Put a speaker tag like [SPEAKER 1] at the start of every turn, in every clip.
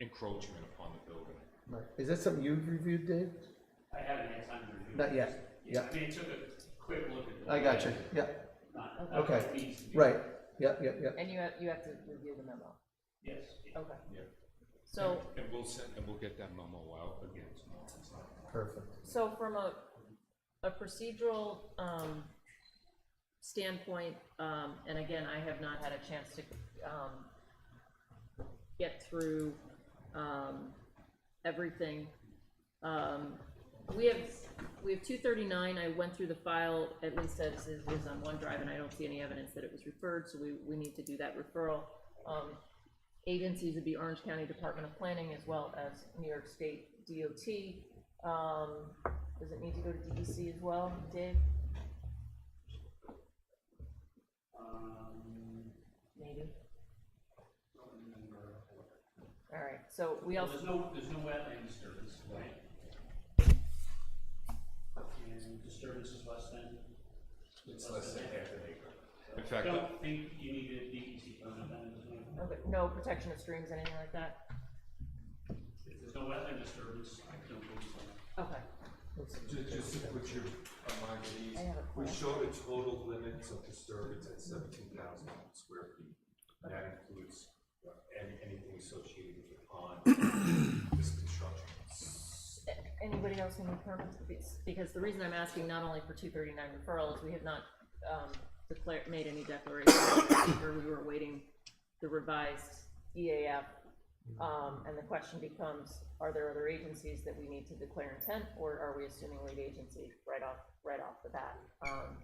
[SPEAKER 1] encroachment upon the building.
[SPEAKER 2] Is that something you've reviewed, Dave?
[SPEAKER 3] I haven't had time to review. it.
[SPEAKER 2] Not yet,
[SPEAKER 3] Yeah,
[SPEAKER 2] yeah.
[SPEAKER 3] I mean, it took a quick look at the.
[SPEAKER 2] I got you,
[SPEAKER 3] plan,
[SPEAKER 2] yeah,
[SPEAKER 3] not- not
[SPEAKER 2] Okay.
[SPEAKER 3] what needs to be-
[SPEAKER 2] right, yeah, yeah, yeah.
[SPEAKER 4] And you have, you have to review the memo,
[SPEAKER 3] Yes.
[SPEAKER 4] okay.
[SPEAKER 1] Yeah.
[SPEAKER 4] So,
[SPEAKER 1] And we'll send, and we'll get that memo out again tomorrow. It's not-
[SPEAKER 2] Perfect.
[SPEAKER 4] so from a, a procedural, um, standpoint, um, and again, I have not had a chance to, um, get through, um, everything. Um, we have, we have two thirty-nine, I went through the file, at least as it was on OneDrive, and I don't see any evidence that it was referred, so we, we need to do that referral. Um, agencies would be Orange County Department of Planning as well as New York State DOT. Um, does it need to go to DEC as well, Dave?
[SPEAKER 3] Um,
[SPEAKER 4] Maybe,
[SPEAKER 3] don't remember.
[SPEAKER 4] all right, so we
[SPEAKER 3] Well,
[SPEAKER 4] also,
[SPEAKER 3] There's no, there's no wetland disturbance, right? And disturbance is less than.
[SPEAKER 1] It's less than half an acre. In
[SPEAKER 3] I
[SPEAKER 1] fact,
[SPEAKER 3] don't think you need a DEC permit then, there's no-
[SPEAKER 4] okay, no protection of streams, anything like that?
[SPEAKER 3] if there's no wetland disturbance, I don't believe so.
[SPEAKER 4] Okay,
[SPEAKER 5] Ju- Just to put your uh, mind at
[SPEAKER 4] I
[SPEAKER 5] ease,
[SPEAKER 4] have a
[SPEAKER 5] we
[SPEAKER 4] plan.
[SPEAKER 5] showed a total limits of disturbance at seventeen thousand square feet. And That includes uh, any, anything associated with the pond, this construction.
[SPEAKER 4] A- Anybody else need permits? Because- Because the reason I'm asking not only for two thirty-nine referral is we have not, um, declared, made any declaration. Or we were waiting the revised EAF. Um, and the question becomes, are there other agencies that we need to declare intent, or are we assuming lead agency right off, right off the bat? Um,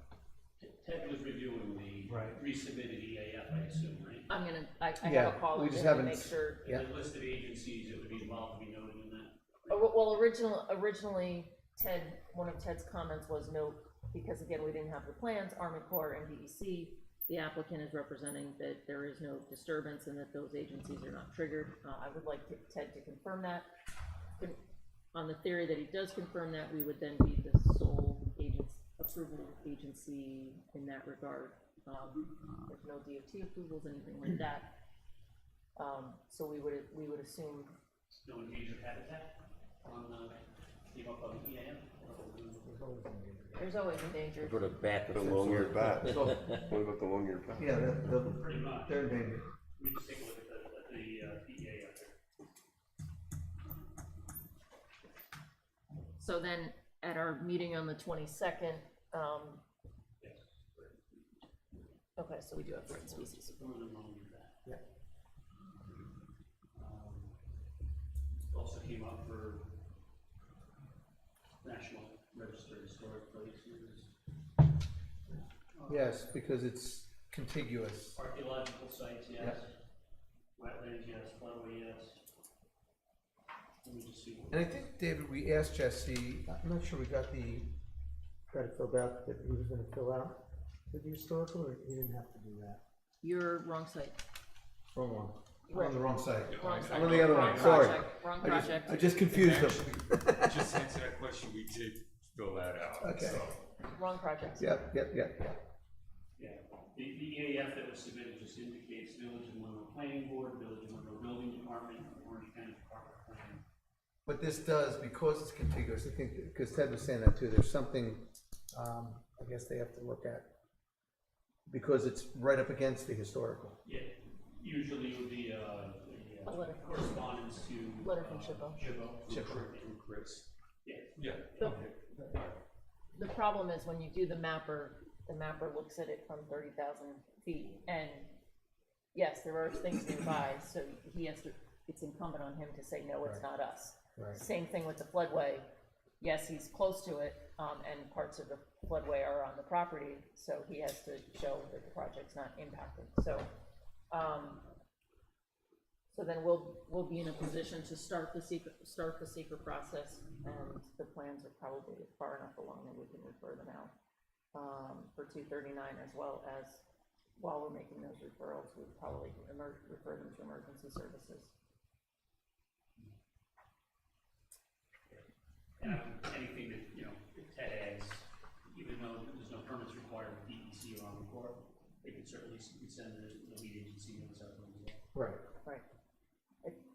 [SPEAKER 3] Ted was reviewing the resubmitted EAF, I assume, right?
[SPEAKER 4] I'm gonna, I, I have
[SPEAKER 2] Yeah,
[SPEAKER 4] a call
[SPEAKER 2] we
[SPEAKER 4] with
[SPEAKER 2] just
[SPEAKER 4] him to
[SPEAKER 2] haven't
[SPEAKER 4] make
[SPEAKER 2] s-
[SPEAKER 4] sure.
[SPEAKER 2] Yeah.
[SPEAKER 3] The list of agencies that would be involved would be noted in that.
[SPEAKER 4] Uh, Well, original, originally Ted, one of Ted's comments was no, because again, we didn't have the plans, Army Corps and DEC. The applicant is representing that there is no disturbance and that those agencies are not triggered. Uh, I would like to- Ted to confirm that. Con- On the theory that he does confirm that, we would then be the sole agents, approval agency in that regard. Um, there's no DOT approvals, anything like that. Um, so we would, we would assume
[SPEAKER 3] No endangered habitat on the, you know, on E the EAF.
[SPEAKER 4] there's always endangered.
[SPEAKER 6] Put a bat
[SPEAKER 7] Put a
[SPEAKER 6] long
[SPEAKER 7] long-eared bat.
[SPEAKER 2] So,
[SPEAKER 7] What about the long-eared bat?
[SPEAKER 2] yeah, the, the,
[SPEAKER 3] Pretty much.
[SPEAKER 2] they're endangered.
[SPEAKER 3] Let me just take a look at the, at the, uh, PEA out there.
[SPEAKER 4] So then, at our meeting on the twenty-second, um. Okay, so we do have threatened species.
[SPEAKER 3] One of them long eared bat. Yeah. Um, Also came up for National Register of Historic Places,
[SPEAKER 2] Yes, because it's contiguous.
[SPEAKER 3] archaeological sites, yes.
[SPEAKER 2] Yeah.
[SPEAKER 3] Wetlands, yes, floodway, yes. Let me just see. what-
[SPEAKER 2] And I think, David, we asked Jesse, I'm not sure we got the,
[SPEAKER 8] try to fill out that he was gonna fill out for the historical, or he didn't have to do that?
[SPEAKER 4] You're wrong site.
[SPEAKER 2] wrong one. We're on the wrong side.
[SPEAKER 4] Wrong
[SPEAKER 1] I-
[SPEAKER 4] side.
[SPEAKER 2] I'm on the other
[SPEAKER 4] Wrong
[SPEAKER 2] one, sorry.
[SPEAKER 4] project, Wrong
[SPEAKER 2] I just- I
[SPEAKER 4] project,
[SPEAKER 2] just confused them.
[SPEAKER 1] Actually, Just to answer that question, we did fill that out,
[SPEAKER 2] Okay.
[SPEAKER 1] so.
[SPEAKER 4] wrong project.
[SPEAKER 2] Yep, yep, yep, yep.
[SPEAKER 3] Yeah, the, the EAF that was submitted just indicates Village of Monroe Planning Board, Village of Monroe Building Department, Orange County Department of Planning.
[SPEAKER 2] But this does, because it's contiguous, I think, because Ted was saying that too, there's something, um, I guess they have to look at. Because it's right up against the historical.
[SPEAKER 3] Yeah, usually it would be, uh, a,
[SPEAKER 4] A letter.
[SPEAKER 3] uh, correspondence to.
[SPEAKER 4] Letter from
[SPEAKER 3] uh,
[SPEAKER 4] Chippo.
[SPEAKER 3] Chippo. From Chris. Yeah,
[SPEAKER 1] Yeah,
[SPEAKER 4] The,
[SPEAKER 1] all right.
[SPEAKER 4] the problem is when you do the mapper, the mapper looks at it from thirty thousand feet, and yes, there are things nearby, so he has to, it's incumbent on him to say, no, it's not us.
[SPEAKER 2] Right.
[SPEAKER 4] Same thing with the floodway. Yes, he's close to it, um, and parts of the floodway are on the property, so he has to show that the project's not impacted, so, um, so then we'll, we'll be in a position to start the secret, start the secret process, and the plans are probably far enough along that we can refer them out, um, for two thirty-nine, as well as, while we're making those referrals, we probably emer, refer them to emergency services.
[SPEAKER 3] and um, anything that, you know, if Ted adds, even though there's no permits required E with DEC or Army Corps, they could certainly s- send the, the lead agency notice out as well.
[SPEAKER 2] Right.